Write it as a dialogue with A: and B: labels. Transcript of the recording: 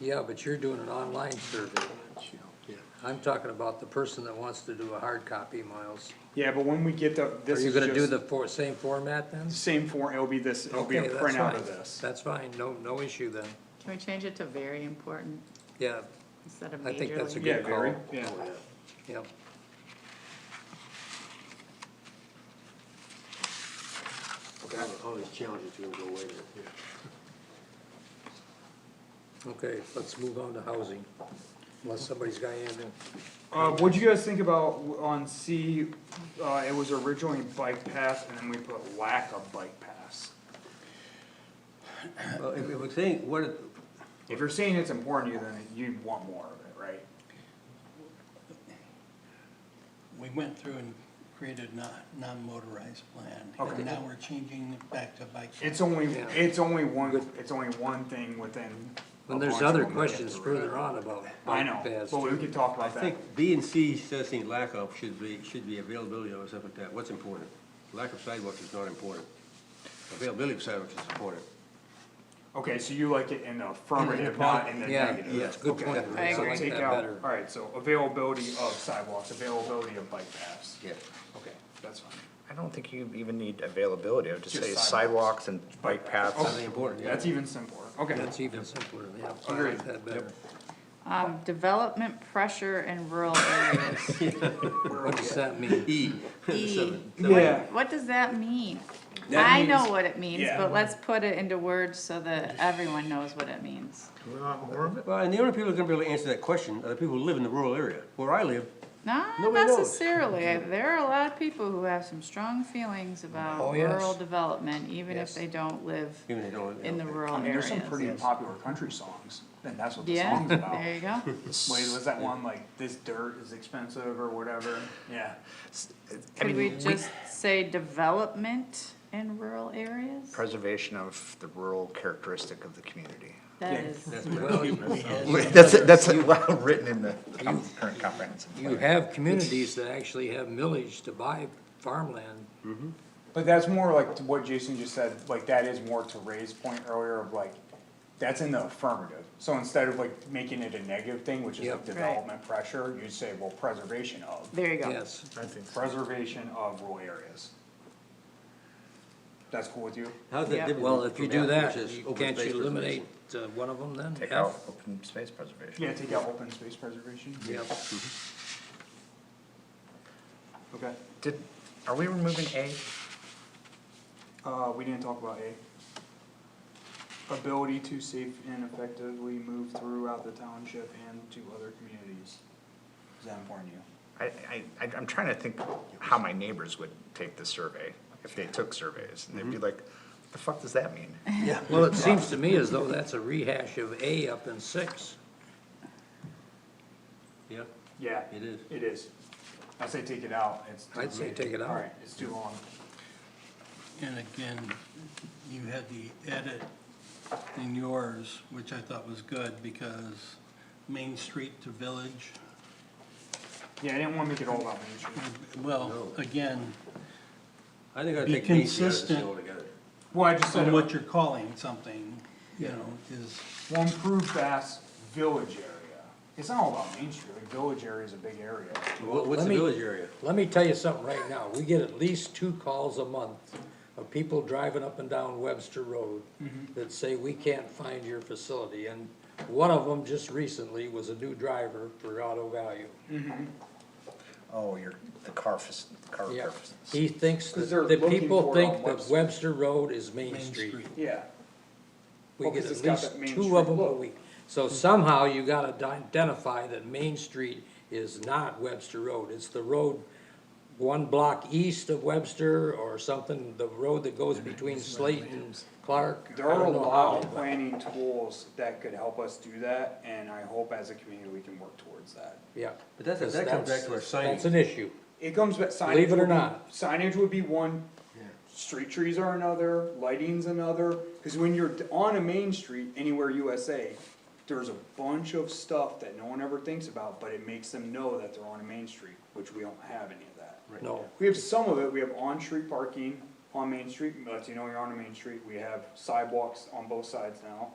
A: Yeah, but you're doing an online survey. I'm talking about the person that wants to do a hard copy, Miles.
B: Yeah, but when we get the,
A: Are
B: this
A: you
B: is
A: gonna do
B: just
A: the for, same format then?
B: same form, it'll be this, it'll be a
A: Okay, that's
B: printout of
A: fine.
B: this.
A: That's fine, no, no issue then.
C: Can we change it to very important
A: Yeah,
C: instead of
A: I think that's a
C: majorly?
B: Yeah,
A: good
B: very,
A: call.
B: yeah.
A: Yep.
D: All all these challenges are gonna go away.
A: Okay, let's move on to housing. Unless somebody's got anything.
B: Uh, what'd you guys think about w- on C, uh, it was originally bike path and then we put lack of bike paths.
D: Well, if, if we think, what, it-
B: If you're saying it's important to you, then you want more of it, right?
E: We went through and created non, non-motorized plan,
B: Okay.
E: and now we're changing it back to bike.
B: It's only,
A: Yeah.
B: it's only one, it's only one thing within. a
A: When there's
B: bunch of
A: other
B: them that we have
A: questions
B: to read.
A: further on about
B: I
A: bike
B: know,
A: paths.
B: but we could talk
D: I
B: about that.
D: think B and C says things lack of should be, should be availability or something like that, what's important? Lack of sidewalks is not important. Availability of sidewalks is important.
B: Okay, so you like it in the affirmative, not in the
A: Yeah,
B: negative.
A: yeah, good
B: Okay.
A: point.
C: I
A: So
C: agree.
A: like
B: Take
A: that
B: out,
A: better.
B: alright, so availability of sidewalks, availability of bike paths.
D: Yeah.
B: Okay, that's fine.
F: I don't think you even need availability, I would just
B: Just
F: say
B: sidewalks.
F: sidewalks Oh, and bike paths.
D: Something important, yeah.
B: That's even simpler, okay.
A: That's even simpler, yeah, I
B: Agreed.
A: like that better.
C: Um, development pressure in rural areas.
A: What does that mean?
D: E.
C: E,
B: Yeah.
C: what does that mean?
B: That
C: I know
B: means-
C: what it means,
B: yeah.
C: but let's put it into words so that everyone knows what it means.
F: You want more of it?
D: Well, and the only people who are gonna be able to answer that question are the people who live in the rural area. Where I live,
C: Not
D: Nobody knows.
C: necessarily, I- there are a lot of people who have some strong feelings about
A: Oh, yes.
C: rural development, even if
D: Yes.
C: they don't live
D: even if they don't.
C: in the rural
B: I mean, there's
C: areas.
B: some pretty popular country songs, and that's what the
C: Yeah,
B: song's about.
C: there you go.
B: Wait, was that one like, this dirt is expensive or whatever? Yeah.
F: I
C: Could we
F: mean, we,
C: just say development in rural areas?
F: preservation of the rural characteristic of the community.
C: That
B: Yeah.
C: is,
A: Well, you-
F: That's, that's written in the current comprehensive
A: you have communities that actually have millage to buy farmland.
B: But that's more like to what Jason just said, like that is more to Ray's point earlier of like, that's in the affirmative. So instead of like making it a negative thing, which is
A: Yep.
B: like
A: Right.
B: development pressure, you'd say, well, preservation of,
C: there you go.
A: Yes,
B: preservation of rural areas. That's cool with you?
D: How's that
C: Yeah.
D: different?
A: well, if you
D: from
A: do
D: F,
A: that,
D: which is
A: you-
D: open
A: can't
D: space
A: you eliminate
D: preservation?
A: uh, one of them then?
F: Take
A: F?
F: out open space preservation.
B: Yeah, take out open space preservation.
A: Yep,
B: Okay,
F: Did, are we removing A?
B: uh, we didn't talk about A. Ability to safe and effectively move throughout the township and to other communities. Is that important to you?
F: I, I, I- I'm trying to think how my neighbors would take the survey, if they took surveys, and they'd be like, the fuck does that mean?
A: well, it seems to me as though that's a rehash of A up in six.
D: Yeah.
B: Yeah.
D: It is.
B: It is. I say take it out, it's. too
A: I'd say
B: big.
A: take it out.
B: Alright, it's too long.
E: And again, you had the edit in yours, which I thought was good, because Main Street to Village,
B: Yeah, I didn't wanna make it all about Main Street.
A: Mm-hmm.
E: well, again,
D: I think I'd
E: Be
D: take B and C out of this
E: consistent.
D: deal altogether.
B: Well, I just said,
E: from what you're calling something, you know, is,
B: will improve fast village area. It's not all about Main Street, like village area is a big area.
D: What- What's
A: Let
D: the
A: me-
D: village area?
A: Let me tell you something right now, we get at least two calls a month of people driving up and down Webster Road
D: Mm-hmm.
A: that say, we can't find your facility, and one of them just recently was a new driver for Auto Value.
F: Oh, you're, the car, fac- the car
A: Yeah,
F: repair. fac-
A: he thinks,
B: 'Cause they're
A: that the
B: looking
A: people
B: for it on
A: think that
B: Webster.
A: Webster Road is Main
E: Main
A: Street.
E: Street.
B: Yeah.
A: We
B: Well,
A: get
B: Oh, 'cause
A: at
B: it's got
A: least
B: that Main
A: two of
B: Street
A: them a
B: look.
A: week. So somehow you gotta di- identify that Main Street is not Webster Road, it's the road one block east of Webster or something, the road that goes between Slate and Clark.
B: There
A: I
B: are a
A: don't know
B: lot
A: how,
B: of planning tools that could help us do that, and I hope as a community, we can work towards that.
A: Yeah.
D: But that's-
A: because
D: that comes back to our
A: that's-
D: signage.
A: That's an issue.
B: It comes back, signage.
A: Believe it or
B: would be-
A: not.
B: Signage would be one, street trees are another, lighting's another, cause when you're on a main street anywhere USA, there's a bunch of stuff that no one ever thinks about, but it makes them know that they're on a main street, which we don't have any of that.
A: No,
B: We have some of it, we have on-street parking on Main Street, lets you know you're on a main street, we have sidewalks on both sides now.